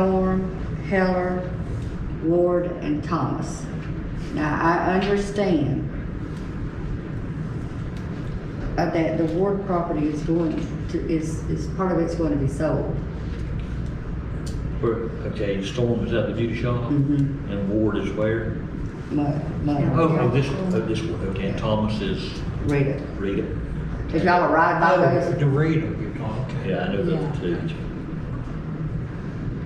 Storm, Heller, Ward, and Thomas. Now, I understand uh, that the Ward property is going to, is, is, part of it's going to be sold. Where- Okay, Storm is at the beauty shop Mm-hmm. Mhm. and Ward is where? Mo- Mo, Oh, oh, this, oh, this one, okay, and Thomas is read it. Rita. If y'all are right by Oh, those, uh, Dorito, you're talking. Yeah, I know those Yeah. two.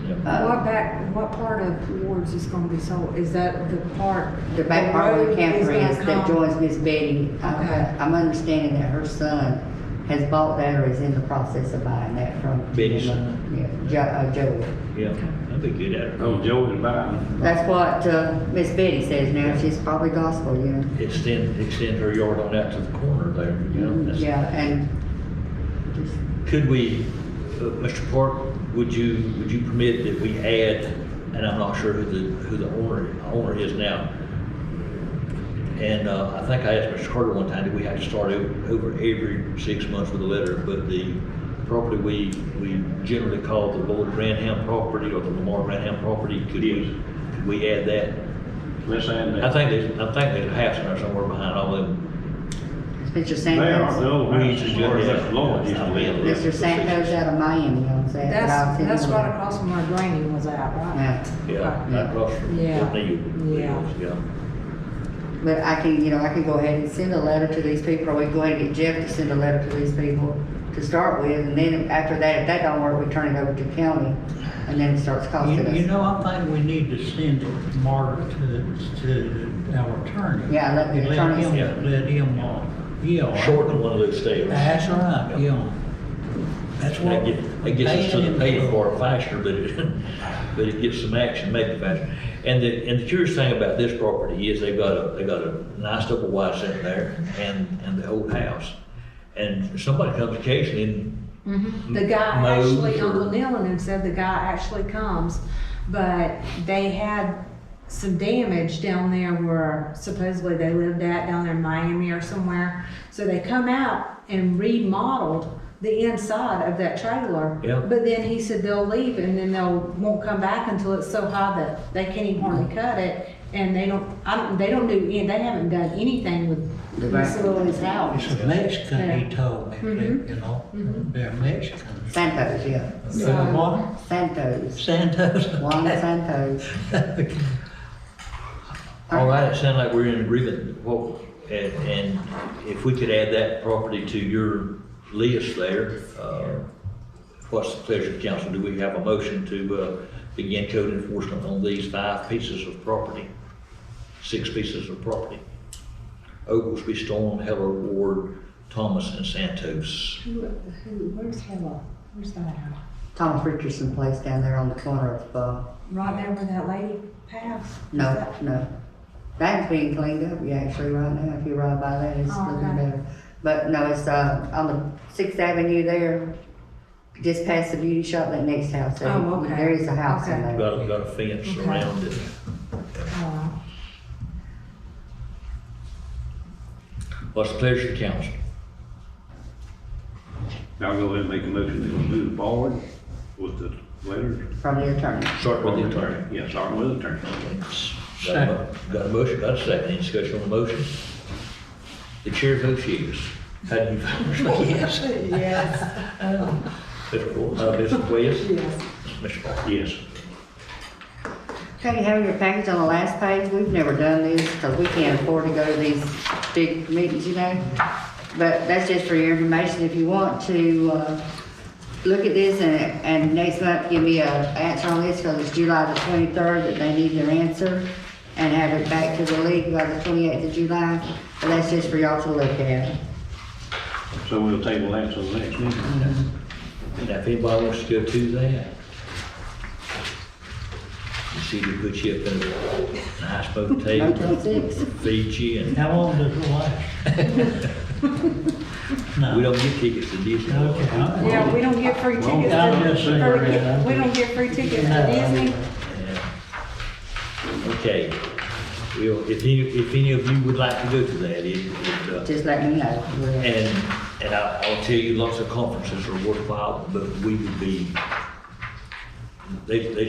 Yeah. uh, What back, what part of Ward's is gonna be sold? Is that the part? the back part of the road is gonna campground that come- joins Miss Betty, Okay. I- I'm understanding that her son has bought that or is in the process of buying that from. Betty's son? Yeah, Jo, uh, Joey. Yeah, that'd be good at it. Oh, Joe and Biden. That's what, uh, Miss Betty says now, she's probably gospel, you know? Extend, extend her yard on out to the corner there, you know? that's- Yeah, and just Could we, uh, Mr. Park, would you, would you permit that we add, and I'm not sure who the, who the owner, owner is now. And, uh, I think I asked Mr. Carter one time, that we have to start o- over every six months with a letter? But the property we, we generally call the Lord Branham property or the Lamar Branham property, could Yes. we, could we add that? Let's add I that. think there's, I think there's a house in there somewhere behind all them. Mr. They are, the Santos, old We house, used to as do far as that. that Lloyd used to live. Mr. Santos out of Miami owns that. That's, about that's 10. right across from where Granny was at, right? Yeah. Yeah, Yeah. right across from Yeah. Neil. Yeah. Yeah. But I can, you know, I can go ahead and send a letter to these people, or we can go ahead and get Jeff to send a letter to these people to start with, and then after that, if that don't work, we turn it over to county, and then it starts costing You, you us. know, I think we need to send it, Margaret, to, to our attorney. Yeah, let the attorney- him- Yeah. Let him, uh, yeah. shorten one of those stairs. That's right, yeah. That's what. That get- that gets us to the pay for it faster, but it, but it gets some action, make it faster. And the, and the curious thing about this property is they've got a, they got a nice double wide center there and, and the old house. And somebody comes occasionally and Mhm. The guy Mows actually, or- Uncle Neil and him said the guy actually comes, but they had some damage down there where supposedly they lived at, down there in Miami or somewhere. So they come out and remodeled the inside of that trailer. Yeah. But then he said they'll leave and then they'll, won't come back until it's so high that they can't even hardly cut it. And they don't, I don't, they don't do, any- they haven't done anything The with back. Miss Lily's house. It's a Mexican, he Yeah. told me, Mhm. you know, they're Mexican. Santos, yeah, So- Uh, what? Santos, Santos? Juan Santos. Okay. All right, it sounds like we're in agreement. Well, and, and if we could add that property to your list there, uh, what's the pleasure of the council? Do we have a motion to, uh, begin code enforcement on these five pieces of property? Six pieces of property? Oglesby, Storm, Heller, Ward, Thomas, and Santos. Who, who, where's Hella? Where's that house? Thomas Richardson Place down there on the corner of, uh, Right there where that lady passed? no, no. That's being cleaned up, yeah, actually, right now, if you ride by that, it's Oh, looking okay. better. But no, it's, uh, on the Sixth Avenue there, just past the beauty shop, that next house there. Oh, okay. There is a house in Okay. there. Got, a- got a fence Okay. around it. Uh, What's the pleasure of the council? I'll go ahead and make a motion to move forward with the letter. from the attorney. Start with the attorney. Yes, starting with the attorney. Got a mo- got a motion, got a second, any discussion on the motion? The chair votes yes. How do you vote? Yes. Yes. Mr. Wilson, uh, Mr. Williams, Yes. Mr. Parker. Yes. Okay, you have your package on the last page. We've never done this because we can't afford to go to these big meetings, you know? But that's just for your information. If you want to, uh, look at this and, and next month give me a answer on this because it's July the twenty-third that they need their answer and have it back to the league by the twenty-eighth of July. But that's just for y'all to look at. So we'll table that till the next meeting. Now, if anybody wants to go to that, you see, they put you up in a nice Motel motel, six. feed you, and How long does it last? we No. don't get tickets to Disney. World. Okay. all right. Yeah, we don't get free tickets. Well, I'm just saying, for- yeah. We don't get free tickets No, to I mean- Disney. Yeah. Okay, we'll, if any, if any of you would like to go to that, it, it, uh, Just let me know. We'll- And, and I, I'll tell you, lots of conferences are worthwhile, but we would be, they, they